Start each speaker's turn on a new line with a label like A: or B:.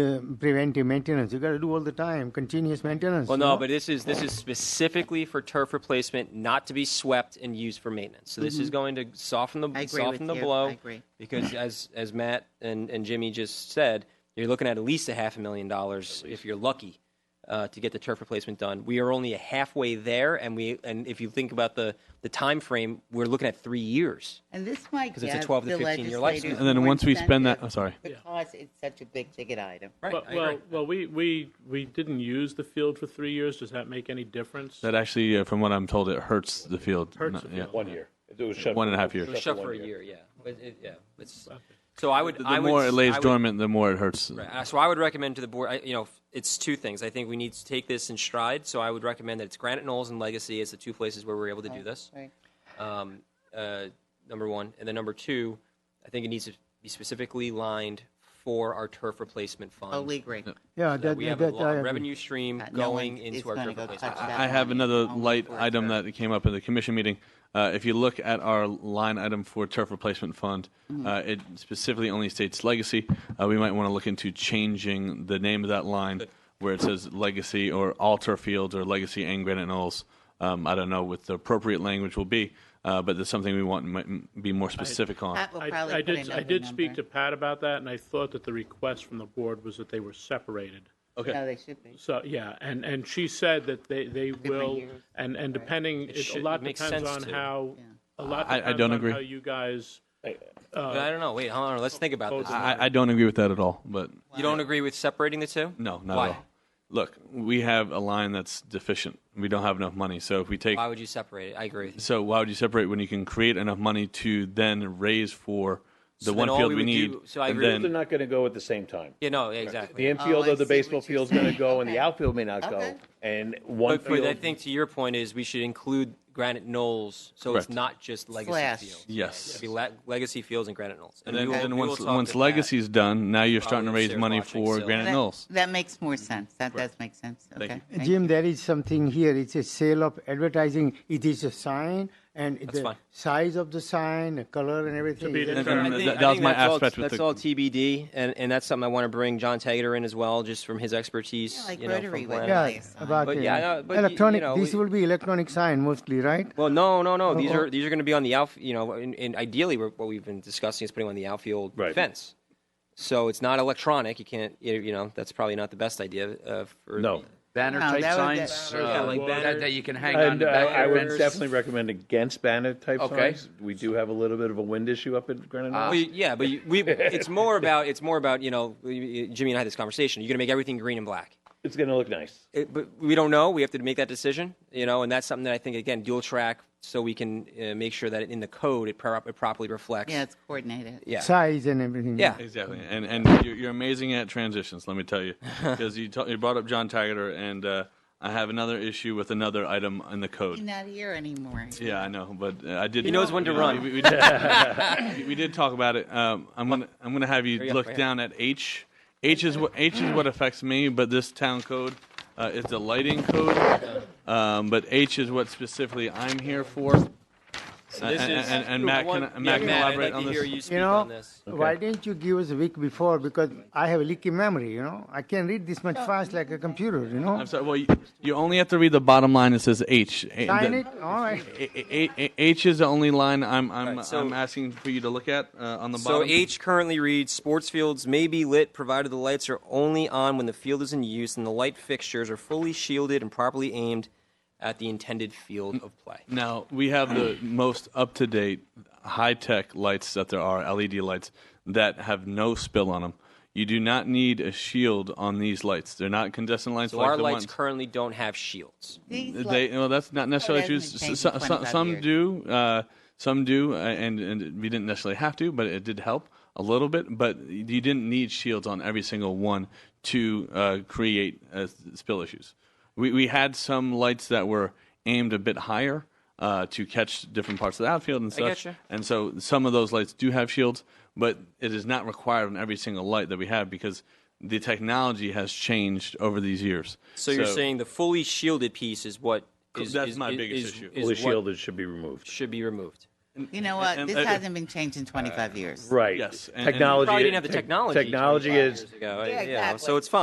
A: Uh, preventive maintenance. You got to do all the time, continuous maintenance.
B: Well,
A: you
B: no,
A: know?
B: but this is this is specifically for turf replacement, not to be swept and used for maintenance. So this is going to soften the
C: Mm-hmm. I agree
B: soften
C: with
B: the
C: you.
B: blow.
C: I agree.
B: Because as as Matt and, and Jimmy just said, you're looking at at least a half a million dollars if you're lucky uh, to get the turf replacement done. We are only halfway there, and we and if you think about the the time frame, we're looking at three years.
C: And this might
B: 'Cause it's a
C: give
B: 12 to
C: the
B: 15 year lifespan.
C: legislators
D: And then
C: more
D: once we spend that-
C: incentive
D: I'm sorry.
C: Because it's such a big ticket item.
B: Right.
E: Well, well, well, we, we, we didn't use the field for three years. Does that make any difference?
D: That actually, uh, from what I'm told, it hurts the field.
E: Hurts
D: Not-
E: the
D: yeah.
E: field.
F: One year. It was shut.
D: One and a half
F: it
D: years.
F: was
B: It was shut for a
F: one
B: year, yeah. But it, yeah, it's, so I would.
D: The
B: I would,
D: more it lays
B: I would-
D: dormant, the more it hurts.
B: Uh, So I would recommend to the board, I, you know, it's two things. I think we need to take this in stride. So I would recommend that it's Granite Knolls and Legacy as the two places where we're able to do this.
C: Right.
B: Um, uh, number one, and then number two, I think it needs to be specifically lined for our turf replacement fund.
C: Oh, we agree.
A: yeah, Uh, that,
B: We have
A: that,
B: a
A: I
B: lo-
A: agree.
B: revenue stream
C: That no
B: going
C: one is
B: into our
C: gonna
B: turf
C: go
B: replacement.
C: touch that.
D: I have
C: money
D: another
C: only
D: light
C: for
D: item
C: turf.
D: that came up in the commission meeting. Uh, if you look at our line item for turf replacement fund,
B: Mm.
D: uh, it specifically only states legacy. Uh, we might want to look into changing the name of that line where it says legacy or all turf fields or legacy and granite knolls. Um, I don't know what the appropriate language will be, uh, but that's something we want to be more specific on.
C: Pat will
E: I,
C: probably
E: I
C: put
E: did, I
C: another
E: did speak
C: number.
E: to Pat about that, and I thought that the request from the board was that they were separated.
C: No, they should be.
E: So, yeah, and, and she said that they, they will,
C: years.
E: and, and depending, it- a
B: should-
E: lot
B: it makes
E: depends on
B: sense to.
E: how, a lot
D: I- I
E: depends
D: don't
E: on
D: agree.
E: how you guys,
B: But I don't know. Wait, hold on. Let's think about this.
D: I, I don't agree with that at all, but.
B: You don't agree with separating the two?
D: No, not
B: Why?
D: at all. Look, we have a line that's deficient. We don't have enough money. So if we take,
B: Why would you separate it? I agree with you.
D: so why would you separate when you can create enough money to then raise for the
B: So
D: one
B: then all
D: field
B: we
D: we,
B: would
D: need?
B: do- so I
D: and
B: agree with
F: year. They're
D: then
F: not going to go at the same time.
B: Yeah, no, exactly.
F: The infield
C: Oh, I
F: of the
C: see
F: baseball
C: what you're
F: field is going
C: saying.
F: to go, and the
C: Okay.
F: outfield may not
C: Okay.
F: go. And one
B: But, but I
F: field.
B: think to your point is we should include Granite Knolls, so
D: Correct.
B: it's not just Legacy
C: Slash.
B: Fields.
D: Yes.
B: It'd be le- Legacy Fields and Granite Knolls.
D: and then,
B: we will-
D: then
B: we will
D: once
B: talk
D: once
B: to Pat.
D: legacy's done, now you're starting to
B: Probably
D: raise
B: upstairs
D: money
B: watching,
D: for
B: so-
D: Granite
C: That-
D: Knolls.
C: That makes more sense. That does make sense.
D: you.
C: Okay. thank
A: Jim, there is something here. It's a sale of advertising. It is a sign, and the
B: fine.
A: size of the sign, the color, and everything.
E: be
A: is-
E: determined.
B: I
D: Um,
B: think-
D: that-
B: I
D: that was
B: think
D: my
B: that's all-
D: aspect with
B: That's
D: the-
B: all TBD, and, and that's something I want to bring John Taggart in as well, just from his expertise.
C: Yeah, like
B: you know, from
C: Rotary
B: Glen.
C: would.
A: yeah,
C: Nice.
A: about
B: But
A: it.
B: yeah, I know, but y- you
A: electronic.
B: know,
A: these
B: we-
A: will be electronic sign mostly, right?
B: Well, no, no, no. These
A: Oh, oh.
B: are these are going to be on the out. You know, and, and ideally, we're, what we've been discussing is putting on the outfield
F: Right.
B: fence. So it's not electronic. You can't. You you know, that's probably not the best idea. Uh, for,
F: No.
G: Banner
C: No,
G: type
C: that would be-
G: signs.
B: Yeah,
G: uh,
B: like banner-
G: that, that you can hang on
F: And
G: the
F: uh,
G: back
F: I
G: of
F: would
G: your fence.
F: definitely recommend against banner type
G: Okay.
F: signs. We do have a little bit of a wind issue up at Granite Knoll.
B: Well, you- yeah, but you, we. It's more about. It's more about. You know, we- we- Jimmy and I had this conversation. You're going to make everything green and black.
F: It's going to look nice.
B: It, but we don't know. We have to make that decision. You know, and that's something that I think again dual track, so we can uh, make sure that in the code it, pro- it properly reflects.
C: Yeah, it's coordinated.
B: Yeah.
A: Size and everything.
B: Yeah.
D: Exactly, and and you're, you're amazing at transitions. Let me tell you, because you, ta- you brought up John Taggart, and uh, I have another issue with another item in the
C: He's
D: code.
C: not here anymore.
D: Yeah, I know, but uh, I did.
B: He knows when to run.
D: We, we did, we- we did talk about it. Um, I'm gonna I'm gonna have you
B: you go,
D: look
B: right here.
D: down at H. H is what H is what affects me, but this town code uh, is the lighting code. Um, but H is what specifically I'm here for.
B: This
D: and,
B: is-
D: and, and Matt
B: One-
D: can, Matt can
B: Matt,
D: elaborate
B: I'd like
D: on
B: to
D: this.
B: hear you speak
A: You know,
B: on this.
A: why didn't you give us a week before? Because I have a leaky memory. You know, I can't read this much fast like a computer. You know,
D: I'm sorry. Well, you, you only have to read the bottom line. It says H. A-
A: sign
D: the-
A: it. All right.
D: A- A- A- H is the only line I'm I'm,
B: Alright, so-
D: I'm asking for you to look at uh, on the
B: So
D: bottom.
B: H currently reads sports fields may be lit provided the lights are only on when the field is in use and the light fixtures are fully shielded and properly aimed at the intended field of play.
D: Now we have the most up to date, high tech lights that there are, LED lights that have no spill on them. You do not need a shield on these lights. They're not incandescent lights.
B: So
D: like
B: our
D: the
B: lights
D: ones.
B: currse don't have shields.
C: These
D: They, uh,
C: li-
D: well, that's not necessarily true.
C: "Oh, hasn't been changed
D: S- so-
C: in
D: so-
C: 25
D: some
C: years.
D: do, uh, some do, uh, and, and we didn't necessarily have to, but it did help a little bit. But you didn't need shields on every single one to uh, create uh, s- spill issues. We we had some lights that were aimed a bit higher uh, to catch different parts of the outfield and such.
B: getcha.
D: And so some of those lights do have shields, but it is not required on every single light that we have because the technology has changed over these years.
B: So, you're saying the fully shielded piece is what is
D: That's
B: is-
D: my
B: is-
D: biggest
B: is-
D: issue.
B: is
F: Fully
B: what
F: shielded should be removed.
B: should be removed.
C: You know what?
D: and-
C: This
D: uh,
C: hasn't been changed in 25 years.
F: Right.
D: Yes, and- and-
F: Technology.
B: Probably didn't have the
F: tech-
B: technology.
F: Technology
B: 25
F: is
B: years ago.
C: Yeah,
B: yeah, So
C: exactly.
B: it's fine.